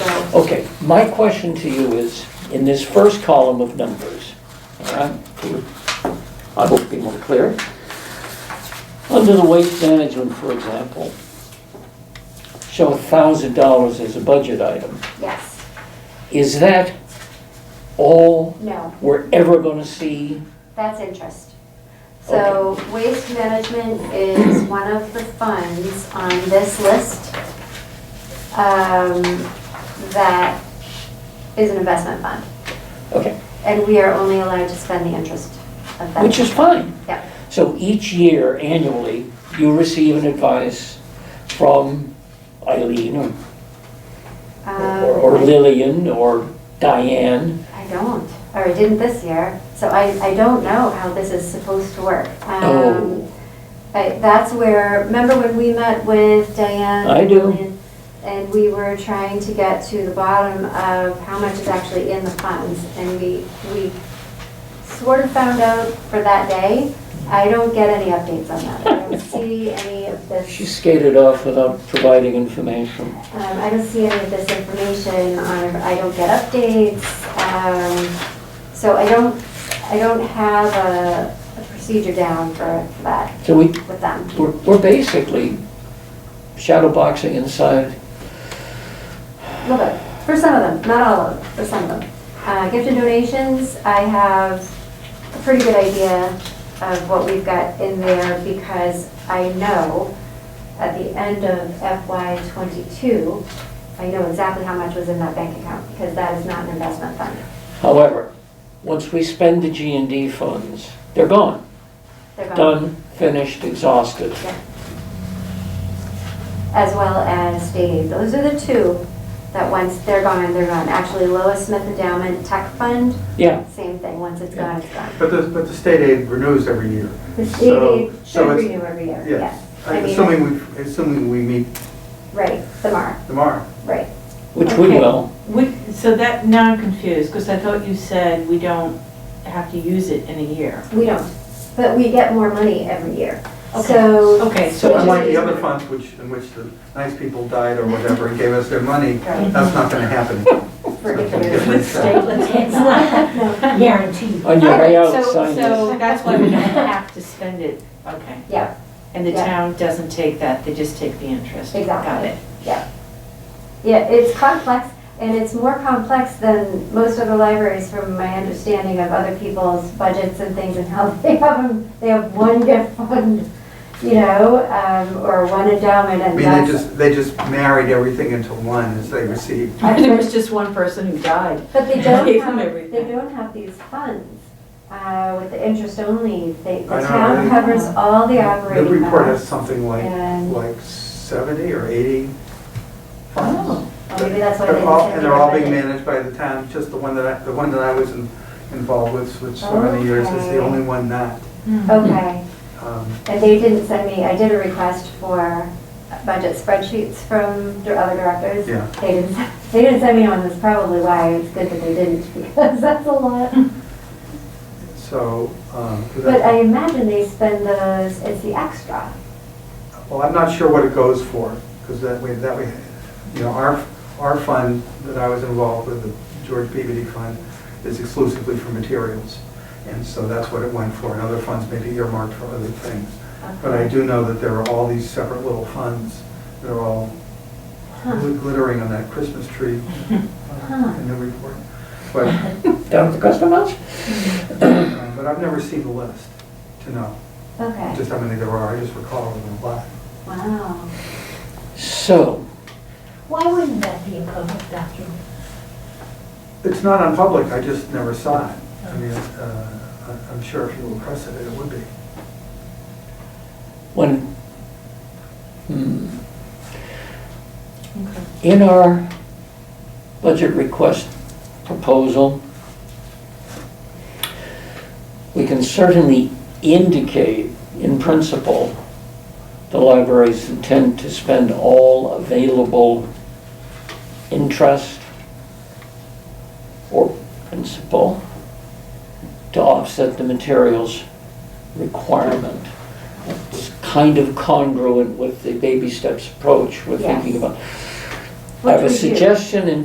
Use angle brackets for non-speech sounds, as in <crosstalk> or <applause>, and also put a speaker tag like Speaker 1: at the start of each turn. Speaker 1: Okay, my question to you is, in this first column of numbers, all right, I hope to be more clear. Under the waste management, for example, show thousand dollars as a budget item.
Speaker 2: Yes,
Speaker 1: Is that all
Speaker 2: no,
Speaker 1: we're ever gonna see?
Speaker 2: that's interest. So waste management is one of the funds on this list um, that is an investment fund,
Speaker 1: Okay,
Speaker 2: and we are only allowed to spend the interest of that.
Speaker 1: which is fine.
Speaker 2: Yeah.
Speaker 1: So each year annually, you receive an advice from Eileen or
Speaker 2: Um,
Speaker 1: or or Lillian or Diane.
Speaker 2: I don't, or I didn't this year, so I, I don't know how this is supposed to work. Um,
Speaker 1: Oh.
Speaker 2: I- That's where, remember when we met with Diane?
Speaker 1: I do.
Speaker 2: and- And we were trying to get to the bottom of how much is actually in the funds, and we, we sort of found out for that day. I don't get any updates on that. I don't see any of
Speaker 1: She
Speaker 2: this,
Speaker 1: skated off without providing information.
Speaker 2: um, I don't see any of this information on, I don't get updates. Um, so I don't, I don't have a a procedure down for for that
Speaker 1: So we,
Speaker 2: with them.
Speaker 1: we're we're basically shadow boxing inside.
Speaker 2: A little bit, for some of them, not all of them, for some of them. Uh, Gift and donations, I have a pretty good idea of what we've got in there because I know at the end of FY '22, I know exactly how much was in that bank account because that is not an investment fund.
Speaker 1: However, once we spend the G and D funds, they're gone.
Speaker 2: They're gone.
Speaker 1: Done, finished, exhausted.
Speaker 2: as well as state aid. Those are the two that once they're gone, they're gone. Actually, Lois Smith Endowment Tech Fund,
Speaker 1: Yeah,
Speaker 2: same thing, once it's gone, it's gone.
Speaker 3: But the, but the state aid renews every year.
Speaker 2: The state
Speaker 3: So-
Speaker 2: aid
Speaker 3: so
Speaker 2: should
Speaker 3: it's-
Speaker 2: renew every year,
Speaker 3: yeah.
Speaker 2: yes. I mean-
Speaker 3: Assuming we, assuming we meet
Speaker 2: Right, the mark,
Speaker 3: tomorrow.
Speaker 2: right.
Speaker 1: which we
Speaker 4: Okay.
Speaker 1: will.
Speaker 4: We, so that, now I'm confused, because I thought you said we don't have to use it in a year.
Speaker 2: We don't, but we get more money every year.
Speaker 4: Okay.
Speaker 2: So.
Speaker 4: Okay, so
Speaker 2: Which is-
Speaker 3: Unlike the other funds which, in which the nice people died or whatever and gave us their money,
Speaker 2: Right,
Speaker 3: that's not
Speaker 2: <laughs>
Speaker 3: gonna happen.
Speaker 2: for different
Speaker 3: Okay.
Speaker 2: reasons.
Speaker 4: <laughs> With state,
Speaker 2: It's not, no,
Speaker 5: guaranteed.
Speaker 1: On your way out,
Speaker 4: So-
Speaker 1: sign
Speaker 4: So
Speaker 1: this.
Speaker 4: that's why we don't have to spend it, okay.
Speaker 2: Yeah.
Speaker 4: And the
Speaker 2: Yeah.
Speaker 4: town doesn't take that, they just take the interest. Got
Speaker 2: Exactly.
Speaker 4: it.
Speaker 2: yeah, it's complex, and it's more complex than most other libraries from my understanding of other people's budgets and things and how <laughs> they have them, they have one gift <laughs> fund, you know, um, or one endowment
Speaker 3: I
Speaker 2: and
Speaker 3: mean,
Speaker 2: that's.
Speaker 3: they just, they just married everything into one as they received.
Speaker 2: I've
Speaker 4: <laughs> There
Speaker 2: heard-
Speaker 4: was just one person who died.
Speaker 2: But <laughs> they don't
Speaker 4: Gave them
Speaker 2: have, they
Speaker 4: everything.
Speaker 2: don't have these funds, uh, with the interest only, they, the
Speaker 3: I know,
Speaker 2: town
Speaker 3: they-
Speaker 2: covers all the
Speaker 3: The
Speaker 2: operating
Speaker 3: report has
Speaker 2: costs.
Speaker 3: something like,
Speaker 2: And,
Speaker 3: like seventy or eighty.
Speaker 4: Oh.
Speaker 2: well, maybe that's why they.
Speaker 3: They're all-
Speaker 2: didn't
Speaker 3: And they're all being
Speaker 2: budget.
Speaker 3: managed by the town, just the one that I, the one that I was in- involved with, which so many years is
Speaker 2: Okay.
Speaker 3: the only one not.
Speaker 4: Oh,
Speaker 2: Okay.
Speaker 3: Um,
Speaker 2: And they didn't send me, I did a request for budget spreadsheets from the other directors.
Speaker 3: Yeah.
Speaker 2: They didn't, they didn't send me one, that's probably why it's good that they didn't, <laughs> because that's a lot.
Speaker 3: So, um, 'cause
Speaker 2: But I imagine they spend those, it's the extra.
Speaker 3: Well, I'm not sure what it goes for, because that way, that way, you know, our, our fund that I was involved with, the George Peabody Fund, is exclusively for materials. And so that's what it went for, and other funds may be earmarked for other things. But I do know that there are all these separate little funds that are all gl- glittering on that Christmas tree
Speaker 2: <laughs>
Speaker 3: uh, in the report. But,
Speaker 1: Down at the custom house?
Speaker 3: um, but I've never seen the list to know,
Speaker 2: Okay,
Speaker 3: just how many there are, I just recall them a lot.
Speaker 2: wow.
Speaker 1: So,
Speaker 5: Why wouldn't that be a public document?
Speaker 3: It's not on public, I just never saw it. I mean, uh, I- I'm sure if you requested it, it would be.
Speaker 1: when, hmm. In our budget request proposal, we can certainly indicate in principle the library's intent to spend all available interest or principal to offset the materials requirement. It's kind of congruent with the baby steps approach we're thinking
Speaker 2: Yes.
Speaker 1: about. I
Speaker 2: Which
Speaker 1: have a
Speaker 2: we do.
Speaker 1: suggestion in